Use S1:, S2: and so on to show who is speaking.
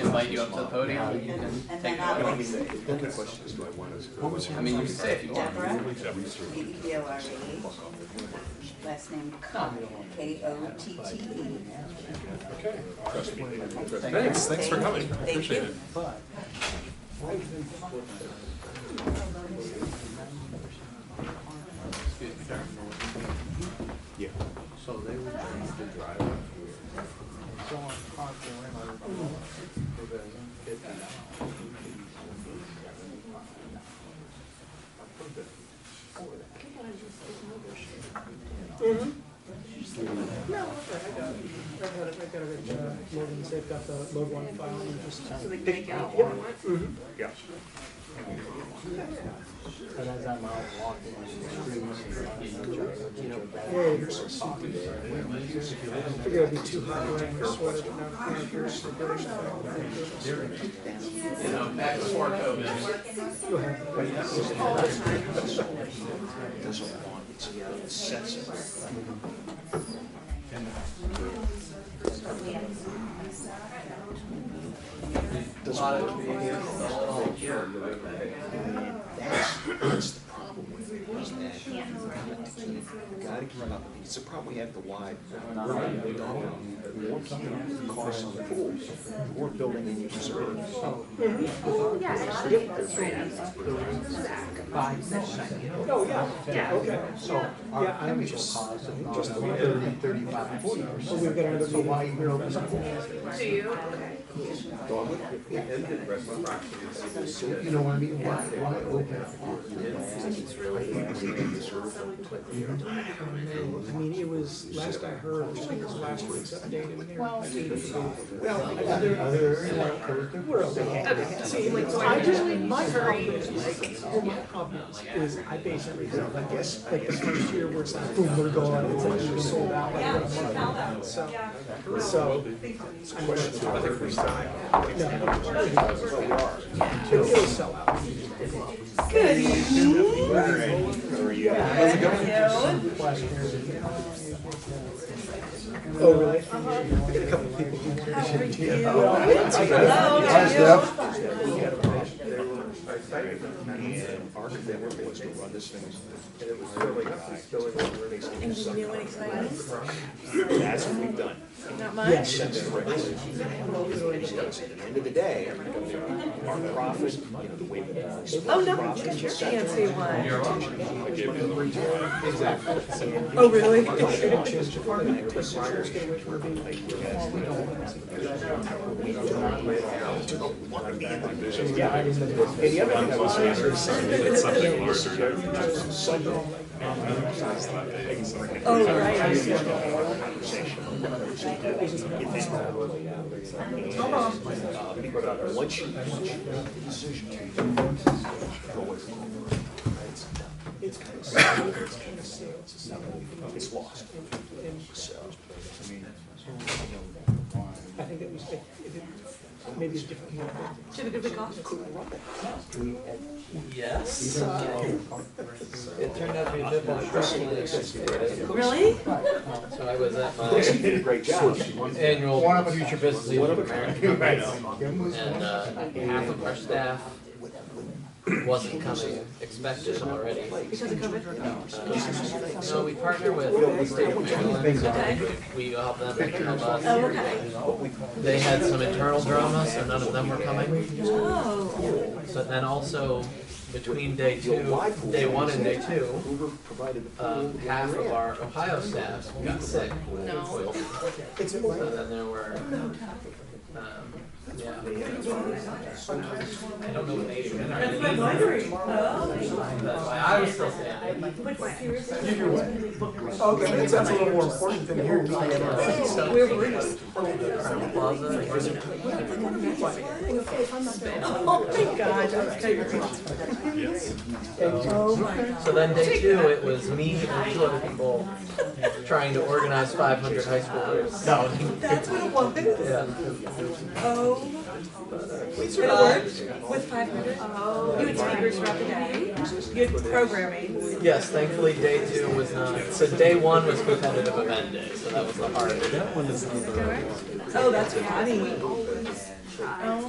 S1: invite you up to the podium, and you can
S2: And
S1: take
S2: then
S1: it away.
S2: I
S1: I
S2: was
S3: Then the question is, do I want to?
S4: What was your-
S1: mean, you can say if you want.
S2: Deborah,
S3: Research.
S2: D E O R A, last name Cotte, K O T T E.
S4: Okay.
S1: Thanks.
S4: Thanks, thanks for coming,
S2: Thank
S4: appreciate
S2: you.
S4: it.
S1: Excuse me, sir.
S3: Yeah.
S5: So they were trying to drive up here. So on Concord, I remember, it was fifty dollars. I put the-
S6: No, okay, I got it. I've got it, I've got it, uh, Logan's, they've got the load one file and just. So they can make out what Mm-hmm.
S3: Yeah.
S5: But as I'm out walking on the streets, you know,
S6: Whoa, you're so soft. Figure it'd be too hot wearing your sweater, but now I'm here's the British flag.
S1: You know, back before COVID,
S6: Go ahead.
S1: a lot of comedians, the whole year,
S3: That's, that's the problem with it, is that you gotta keep, gotta keep up. It's a problem we had with the wide, we're not even going, we weren't keeping up with the costs on the pools, we weren't building any reserves.
S5: five minutes.
S6: Oh, yeah, yeah, okay.
S5: So our
S6: Yeah, I'm
S5: chemical
S6: just-
S5: costs are about thirty, thirty-five, forty
S6: So we've
S5: percent.
S6: got another
S5: So why
S6: meeting.
S5: you know, this is-
S7: Do you? Okay.
S5: so you know what I mean? Why, why open up?
S6: I mean, it was, last I heard, I think it was last week's update in there. Well, uh, We're okay.
S7: Okay,
S6: See, like, so I just, my confidence, is- well, my confidence is, I base everything, on, like, guess, like, this first year where it's not, boom, we're gone, it's like, we're sold out, like, we're a month out, so. So. I'm gonna talk to her. No. It'll it'll sell out.
S7: Good evening.
S6: Oh, really? I got a couple people who.
S7: Hello, how are you?
S3: And our commitment was to run this thing. And it was
S7: New and exciting?
S3: That's what we've done.
S7: Not much?
S3: Send it right. At the end of the day, our profit, you know, the way that. our split
S7: Oh, no,
S3: profit
S7: look at your
S3: is set,
S7: fancy one.
S3: Exactly.
S7: Oh, really?
S3: And the other thing I would say is.
S4: It's something larger than
S7: Oh, right. I see.
S3: But once you, once you make the decision, go away from home. It's it's kind of sad. It's kind of sad. It's not really- It's lost. So, I mean,
S6: I think that was, it- it- maybe it's different. one,
S7: Did you have a good week off?
S5: Yes.
S8: It turned out to be a bit more stressful than anticipated.
S7: Really?
S8: So I was at
S3: She
S8: my
S3: did a great job.
S8: annual future business leader America,
S3: I know.
S8: and uh, half of our staff wasn't coming expected already.
S7: Because of COVID?
S8: Uh, So we partner with the state of Maryland,
S7: Okay.
S8: we help them, they help
S7: Oh,
S8: us.
S7: okay.
S8: They had some internal drama, so none of them were coming.
S7: Oh.
S8: But then also between day two, day one and day two,
S3: Hoover provided the
S8: uh,
S6: Um,
S3: pool.
S8: half of our Ohio staff got sick.
S7: No.
S8: So then there were, um, yeah. I don't know what they do.
S7: That's what I'm wondering. Oh.
S8: That's why I was still standing.
S7: But seriously?
S6: Okay, that sounds a little more important than here.
S8: So-
S7: Where were Oh you?
S8: Crowne Plaza, or is it-
S7: Oh, my God. That's crazy. Oh, my God.
S8: So then day two, it was me and two other people trying to organize five hundred high schoolers. No.
S7: That's what it was.
S8: Yeah.
S7: Oh. It worked with five hundred? Oh. You had speakers throughout the day? You had programming?
S8: Yes, thankfully, day two was not, so day one was competitive event day, so that was the hardest.
S7: Oh, that's funny. Oh,